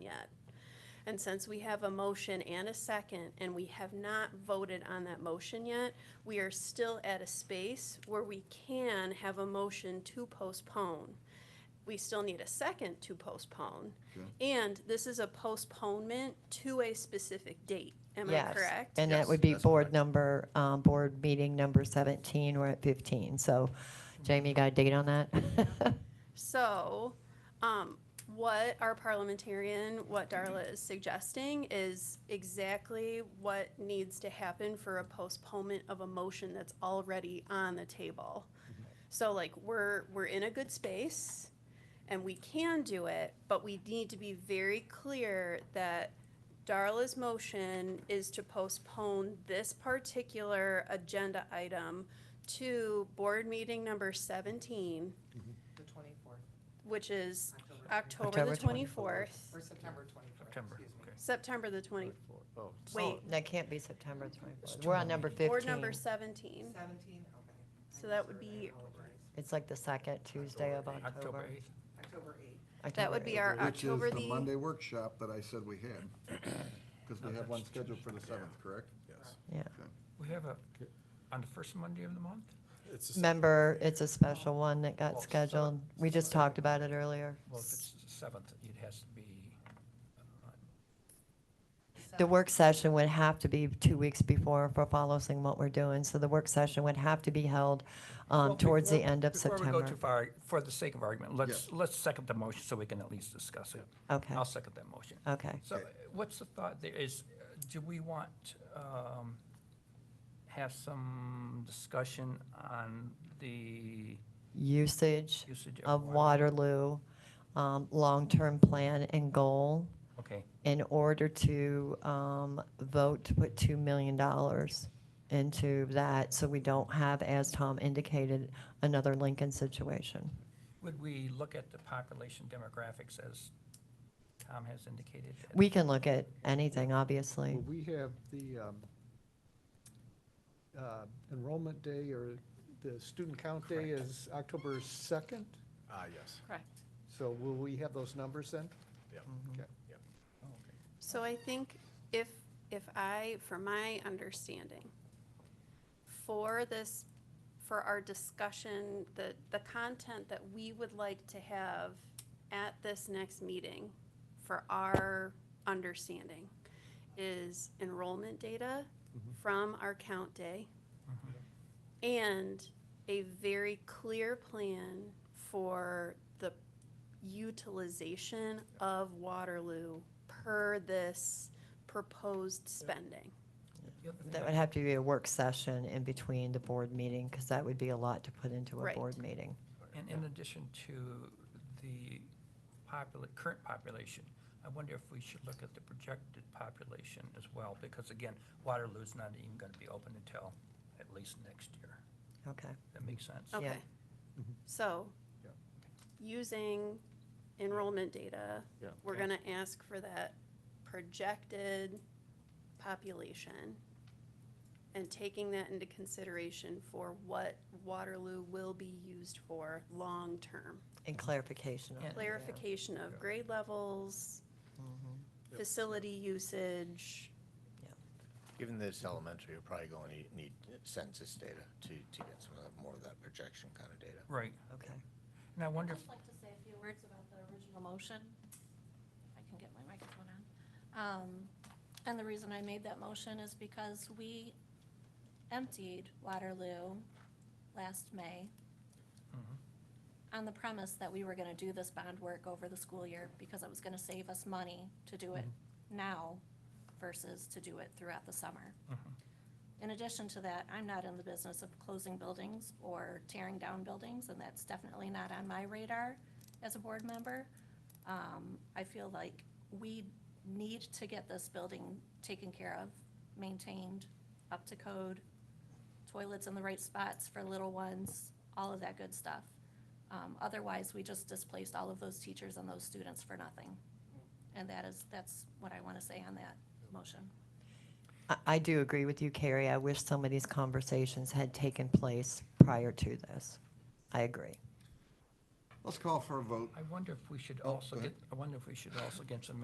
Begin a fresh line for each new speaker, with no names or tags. yet. And since we have a motion and a second, and we have not voted on that motion yet, we are still at a space where we can have a motion to postpone. We still need a second to postpone.
Okay.
And this is a postponement to a specific date. Am I
Yes,
correct?
And that
Yes,
would be
that's
board
correct.
number, um, board meeting number 17, we're at 15. So Jamie, you got a date on that?
So, um, what our parliamentarian, what Darla is suggesting is exactly what needs to happen for a postponement of a motion that's already on the table. So like, we're, we're in a good space and we can do it, but we need to be very clear that Darla's motion is to postpone this particular agenda item to board meeting number seventeen,
The twenty-fourth,
which is
October.
October the
October 24th.
Or
twenty-fourth,
September twenty-fourth,
September,
excuse me.
okay.
September the twenty,
Oh,
wait,
That can't be September 24th. We're on number
or number
15.
seventeen.
Seventeen, okay. I
So that would
misheard, I
be-
apologize.
It's like the second Tuesday of
October
October.
8th.
October eighth.
That would
October
be
8th.
our
Which
October
is the
the,
Monday workshop that I said we had, because we have one scheduled for the seventh, correct?
Yes,
We have a, on the first Monday of the month?
it's the same.
Remember, it's a special one that
Oh,
got
so-
scheduled. We just talked about it earlier.
Well, if it's the seventh, it has to be,
The work session would have to be two weeks before for following what we're doing. So the work session would have to be held um,
Well,
towards the
before-
end of
Before we go
September.
too far, for the sake of argument, let's, let's second the motion so we can at least discuss it.
Okay,
I'll second that motion.
okay.
So
Okay.
uh, what's the thought there is, uh, do we want, um, have some discussion on the
Usage
usage of?
of Waterloo, um, long-term plan and goal
Okay,
in order to um, vote to put $2 million into that so we don't have, as Tom indicated, another Lincoln situation.
would we look at the population demographics as Tom has indicated?
We can look at anything, obviously.
Well, we have the um, uh, enrollment day or the student count day
Correct.
is October 2nd,
Ah, yes.
correct.
so will we have those numbers then?
So I think if, if I, for my understanding, for this, for our discussion, the, the content that we would like to have at this next meeting, for our understanding, is enrollment data from our count day and a very clear plan for the utilization of Waterloo per this proposed spending.
The other thing
That
I-
would have to be a work session in between the board meeting, because that would be a lot to put into a
Right.
board meeting.
And in addition to the popula, current population, I wonder if we should look at the projected population as well, because again, Waterloo's not even gonna be open until at least next year.
Okay,
That makes sense?
Yeah.
Okay. So,
Yeah.
using enrollment data,
Yeah.
we're
Okay.
gonna ask for that projected population and taking that into consideration for what Waterloo will be used for long-term.
and clarification. on
Yeah.
it, yeah.
Clarification of grade levels,
Mhm.
facility usage,
Given that it's elementary, you're probably going to need census data to, to get some of that, more of that projection kind of data.
Right,
Okay,
and I wonder,
I'd
if
just like to say a few words about the original motion, if I can get my microphone on. Um, And the reason I made that motion is because we emptied Waterloo last May
Mhm.
on the premise that we were going to do this bond work over the school year because it was going to save us money to do it
Mm-hmm.
now versus to do it throughout the summer.
mhm.
In addition to that, I'm not in the business of closing buildings or tearing down buildings, and that's definitely not on my radar as a board member. Um, I feel like we need to get this building taken care of, maintained, up to code, toilets in the right spots for little ones, all of that good stuff. Um, otherwise, we just displaced all of those teachers and those students for nothing. And that is, that's what I want to say on that motion.
I, I do agree with you, Carrie, I wish some of these conversations had taken place prior to this. I agree.
Let's call for a vote.
I wonder if we should
Oh,
also
go
get,
ahead.
I wonder if we should also get some